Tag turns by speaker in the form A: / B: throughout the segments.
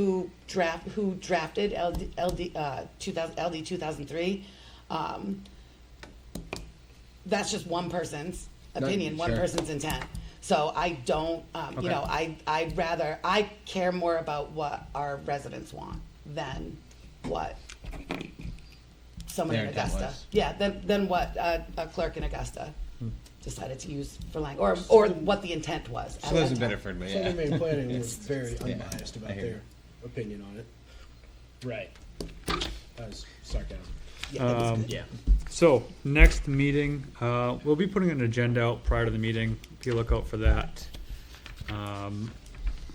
A: who draft, who drafted LD, LD, uh, 2000, LD 2003. Um, that's just one person's opinion, one
B: sure.
A: person's intent. So I don't, um, you
B: Okay.
A: know, I, I'd rather, I care more about what our residents want than what someone
B: Their
A: in
B: intent
A: Augusta.
B: was.
A: Yeah, than, than what uh, a clerk in Augusta
B: Hmm.
A: decided to use for language, or, or what the intent was. at
B: So those
A: that
B: in
A: time.
B: Bedford, but
C: Southern
B: yeah.
C: Maine Planning was very
B: yeah,
C: unbiased
B: I
C: about
B: hear you.
C: their opinion on it. Right. That was sarcasm.
A: Yeah, that was
D: Um,
A: good.
C: Yeah.
D: So, next meeting, uh, we'll be putting an agenda out prior to the meeting. Be look out for that. Um,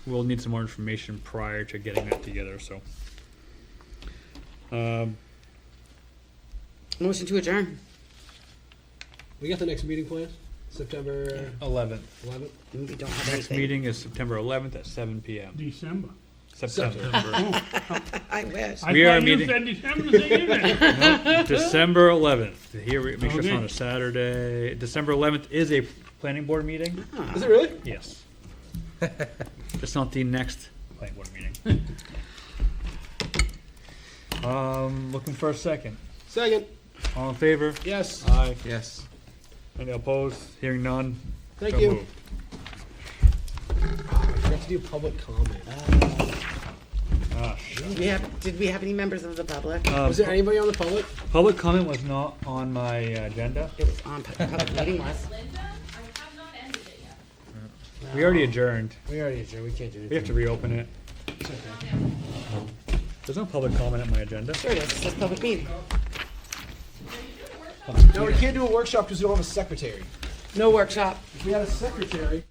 D: we'll need some more information prior to getting that together, so. Um,
A: Motion to adjourn.
C: We got the next meeting planned, September
B: Eleventh.
C: eleventh?
A: We don't have
D: next
A: anything.
D: meeting is September eleventh at seven PM.
E: December.
D: September.
A: I wish.
E: I
D: We
E: thought
D: are
E: you
D: meeting-
E: said December the evening.
D: December eleventh. Here, we make sure it's
E: Okay.
D: on a Saturday. December eleventh is a planning board meeting.
C: Is it really?
D: Yes. It's not the next planning board meeting. Um, looking for a second.
C: Second,
D: All in favor?
C: yes.
D: Aye.
B: Yes.
D: Any opposed? Hearing none?
C: Thank
D: So
C: you.
D: moved.
C: We have to do public comment.
D: Ah, sh-
A: Did we have, did we have any members of the public? Oh,
D: um,
C: Was there anybody on the public?
D: Public comment was not on my agenda.
A: It was on, public meeting was.
F: Linda, I have not ended it yet.
D: We already adjourned.
C: We already adjourned, we can't do
D: We have
C: anything.
D: to reopen it. There's no public comment on my agenda.
A: There it is, it says public meeting.
C: No, we can't do a workshop because we don't have a secretary.
A: No workshop.
C: If we had a secretary.